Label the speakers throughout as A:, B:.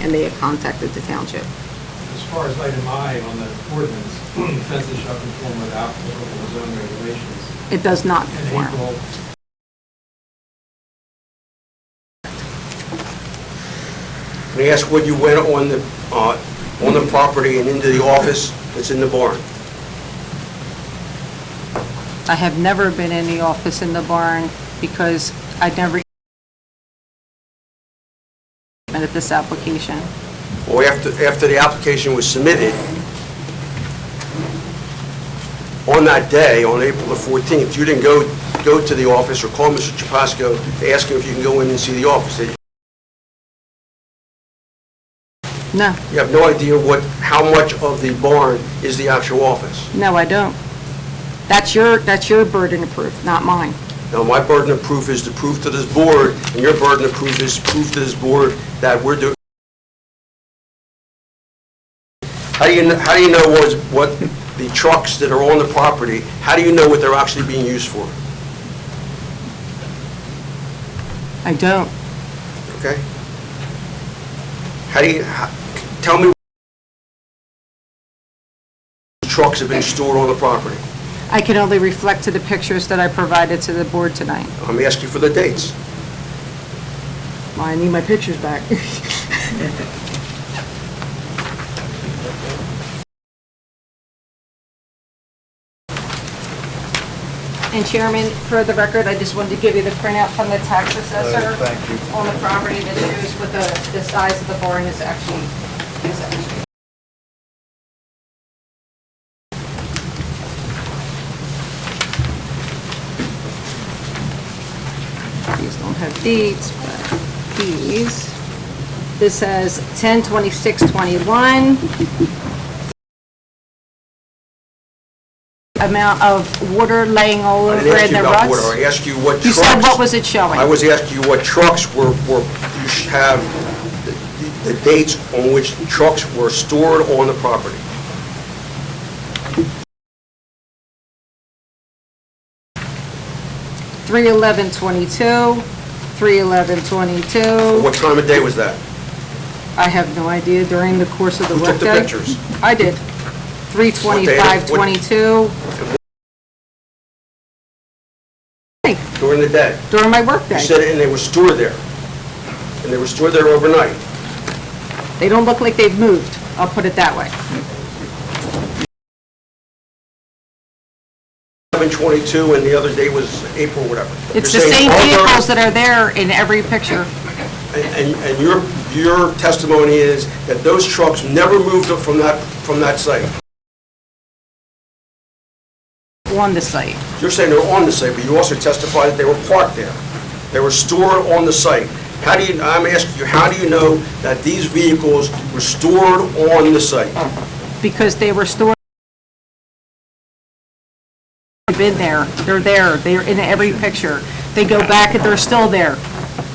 A: and they have contacted the township.
B: As far as item I on the ordinance, fences shall conform with applicable zone regulations.
A: It does not
B: And
A: conform.
B: April,
C: May I ask what you went on the, uh, on the property and into the office that's in the barn?
D: I have never been in the office in the barn because I'd never been at this application.
C: Or after, after the application was submitted, on that day, on April the 14th, you didn't go, go to the office or call Mr. Chapasco to ask him if you can go in and see the office?
D: No,
C: You have no idea what, how much of the barn is the actual office?
D: no, I don't.
A: That's your, that's your burden of proof, not mine.
C: Now, my burden of proof is to prove to this board, and your burden of proof is proof to this board that we're doing. How do you, kn- how do you know what, is- what the trucks that are on the property, how do you know what they're actually being used for?
D: I don't.
C: Okay? How do you, how- tell me what trucks have been stored on the property?
D: I can only reflect to the pictures that I provided to the board tonight.
C: I'm asking for the dates.
A: Well, I need my pictures back.
D: And Chairman, for the record, I just wanted to give you the printout from the tax assessor
E: Uh, thank you.
D: on the property that shows what the, the size of the barn is actually, is actually. These don't have dates, but these, this says 10/26/21. Amount of water laying all
C: I
D: over
C: didn't ask
D: in
C: you
D: the
C: about water,
D: ruts.
C: I asked you what trucks.
D: You said, what was it showing?
C: I was asking you what trucks were, were, you should have the- the dates on which trucks were stored on the property.
D: Three eleven twenty-two, three eleven twenty-two.
C: What time of day was that?
D: I have no idea during the course of the
C: Who took the
D: workday.
C: pictures?
D: I did. Three twenty-five twenty-two
C: During the day?
D: during my workday.
C: You said, and they were stored there. And they were stored there overnight.
D: They don't look like they've moved, I'll put it that way.
C: 7:22, and the other day was April, whatever.
D: It's the
C: You're
D: same
C: saying all those-
D: vehicles that are there in every picture.
C: And, and- and your, your testimony is that those trucks never moved up from that, from that site.
D: on the site.
C: You're saying they're on the site, but you also testified that they were parked there. They were stored on the site. How do you, I'm asking you, how do you know that these vehicles were stored on the site?
D: because they were stored. They've Been there, they're there, they're in every picture. They go back and they're still there.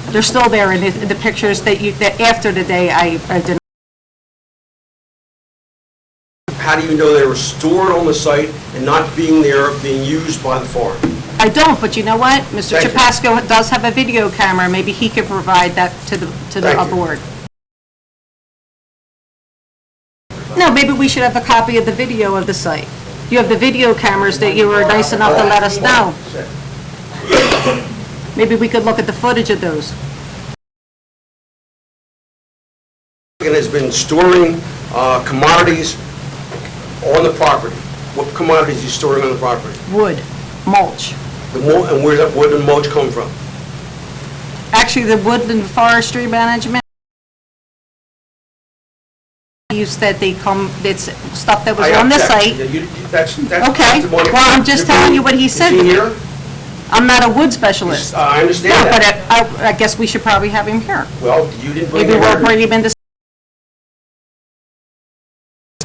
D: They're still there in the, the pictures that you, that after the day I, I did.
C: How do you know they were stored on the site and not being there, being used by the farm?
D: I don't, but you know what? Mr.
C: Thank you.
D: Chapasco does have a video camera, maybe he could provide that to the, to the
C: Thank you.
D: board. No, maybe we should have a copy of the video of the site. You have the video cameras that you were nice enough to let us know. Maybe we could look at the footage of those.
C: And has been storing uh, commodities on the property. What commodities are you storing on the property?
D: Wood, mulch.
C: The mo- And where that wood and mulch come from?
D: Actually, the woodland forestry management use that they come, it's stuff that was
C: I
D: on the
C: object.
D: site.
C: Yeah, you- That's, that's
D: Okay.
C: testimony.
D: Well, I'm just telling you what he
C: Is
D: said.
C: he here?
D: I'm not a wood specialist.
C: I understand
D: No,
C: that.
D: but I, I- I guess we should probably have him here.
C: Well, you didn't bring
D: Maybe
C: the
D: we'll
C: record.
D: bring him in to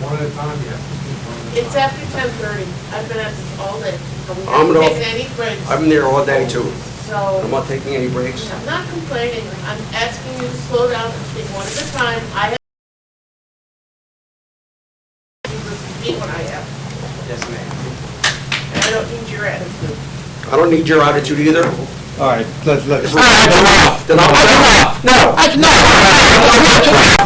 B: One at a time, you have to speak one at a time.
F: It's after ten thirty. I've been at this all day. and We
C: I'm
F: haven't
C: not-
F: taken any breaks,
C: I've been there all day too. I'm
F: so
C: not taking any breaks.
F: I'm not complaining. I'm asking you to slow down and speak one at a time. I have. You listen to me when I have. Yes, ma'am. I don't need your attitude.
C: I don't need your attitude either.
E: All
B: Ah,
E: right, let's, let's.
C: Then I'll- No, no, no.